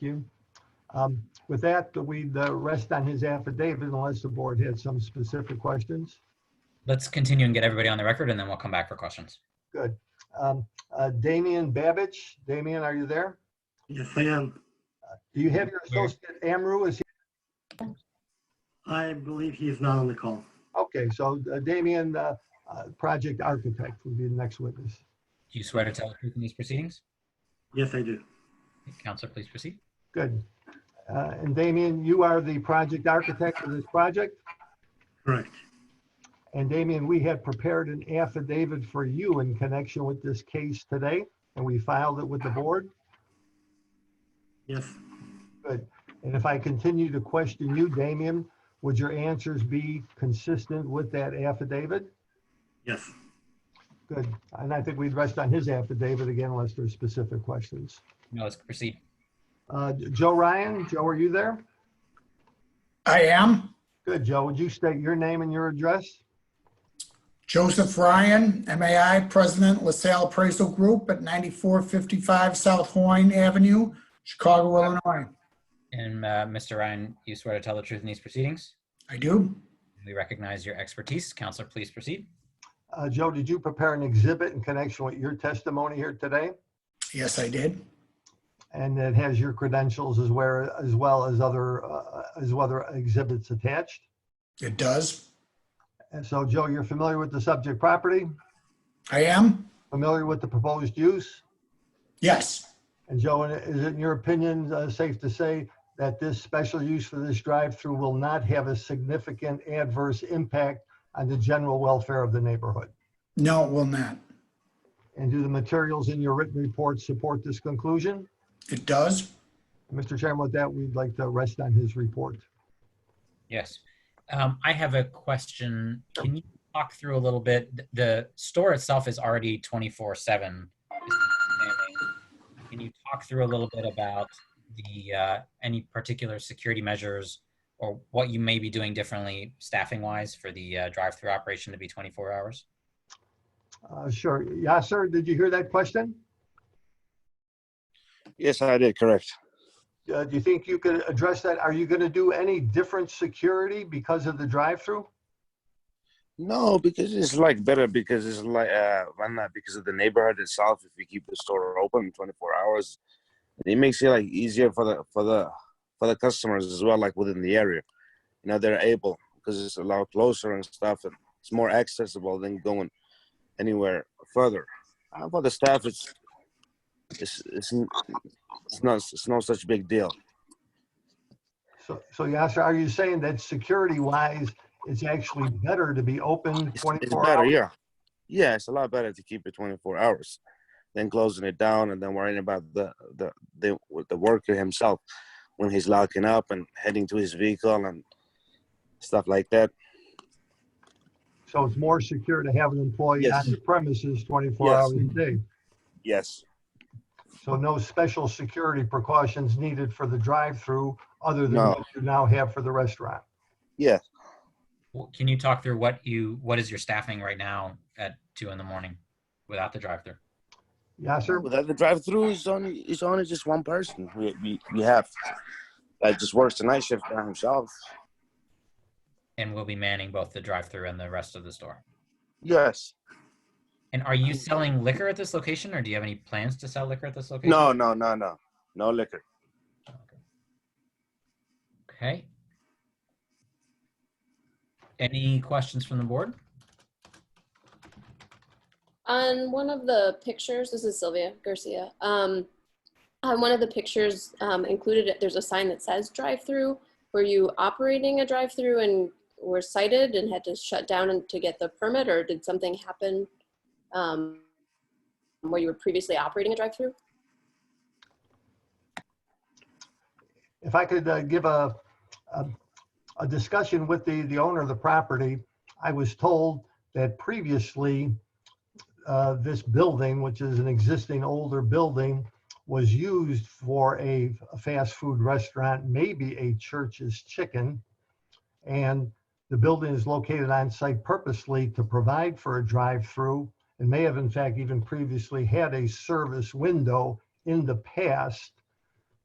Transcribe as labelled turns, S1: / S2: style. S1: you. Um, With that, we'd uh, rest on his affidavit unless the board had some specific questions.
S2: Let's continue and get everybody on the record, and then we'll come back for questions.
S1: Um, uh, Damian Babich, Damian, are you there?
S3: Yes, I am.
S1: Do you have your
S2: Here.
S1: associate Amru? Is he,
S3: I believe he is not on the call.
S1: okay, so uh, Damian, uh, uh, project architect would be the next witness.
S2: Do you swear to tell the truth in these proceedings?
S3: Yes, I do.
S2: Counselor, please proceed.
S1: Good. Uh, And Damian, you are the project architect of this project?
S3: Correct.
S1: And Damian, we had prepared an affidavit for you in connection with this case today, and we filed it with the board.
S3: Yes,
S1: And if I continue to question you, Damian, would your answers be consistent with that affidavit?
S3: yes.
S1: Good. And I think we'd rest on his affidavit again unless there's specific questions.
S2: No, let's proceed.
S1: Uh, Joe Ryan, Joe, are you there?
S4: I am
S1: Good, Joe. Would you state your name and your address?
S4: Joseph Ryan, MAI President, LaSalle Appraisal Group at 9455 South Hoyne Avenue, Chicago, Illinois.
S2: And uh, Mr. Ryan, you swear to tell the truth in these proceedings?
S4: I do.
S2: We recognize your expertise. Counselor, please proceed.
S1: Uh, Joe, did you prepare an exhibit in connection with your testimony here today?
S4: Yes, I did.
S1: And it has your credentials as well, as well as other, uh, as other exhibits attached.
S4: It does.
S1: And so, Joe, you're familiar with the subject property,
S4: I am?
S1: familiar with the proposed use?
S4: Yes.
S1: And Joe, is it in your opinion, uh, safe to say that this special use for this drive-through will not have a significant adverse impact on the general welfare of the neighborhood?
S4: No, it will not.
S1: And do the materials in your written report support this conclusion?
S4: It does.
S1: Mr. Chairman, with that, we'd like to rest on his report.
S2: Yes. Um, I have a question. Can you talk through a little bit? th- The store itself is already 24 7. Can you talk through a little bit about the uh, any particular security measures or what you may be doing differently staffing wise for the uh, drive through operation to be 24 hours?
S1: Uh, Sure. Yasser, did you hear that question?
S5: Yes, I did, correct.
S1: Uh, Do you think you could address that? Are you going to do any different security because of the drive-through?
S5: No, because it's like better because it's like uh why not because of the neighborhood itself if you keep the store open 24 hours it makes it like easier for the for the for the customers as well like within the area you know they're able because it's a lot closer and stuff and it's more accessible than going anywhere further Uh, for the staff it's it's it's, n- it's not it's no such big deal
S1: So, so Yasser, are you saying that security-wise, it's actually better to be open
S5: It's, it's
S1: 24
S5: better,
S1: hours?
S5: yeah. Yeah, it's a lot better to keep it 24 hours than closing it down and then worrying about the the the, with the worker himself when he's locking up and heading to his vehicle and stuff like that.
S1: So it's more secure to have an employee on
S5: Yes.
S1: the premises 24
S5: Yes.
S1: hours a day?
S5: Yes,
S1: So no special security precautions needed for the drive-through other than
S5: No.
S1: what you now have for the restaurant?
S5: yeah.
S2: Wh- Can you talk through what you what is your staffing right now at two in the morning without the drive through?
S1: Yasser?
S5: Without the drive-through, it's only it's only just one person we we, we have that just works the night shift by himself.
S2: And we'll be manning both the drive through and the rest of the store.
S5: Yes.
S2: And are you selling liquor at this location, or do you have any plans to sell liquor at this location?
S5: No, no, no, no, no liquor.
S2: Okay. Any questions from the board?
S6: On one of the pictures, this is Sylvia Garcia. Um, on one of the pictures um, included, there's a sign that says drive-through. Were you operating a drive-through and were cited and had to shut down and- to get the permit, or did something happen um, where you were previously operating a drive-through?
S1: if I could uh, give a, a, a discussion with the, the owner of the property, I was told that previously, uh, this building, which is an existing older building, was used for a fast food restaurant, maybe a church's chicken. And the building is located on site purposely to provide for a drive-through and may have in fact even previously had a service window in the past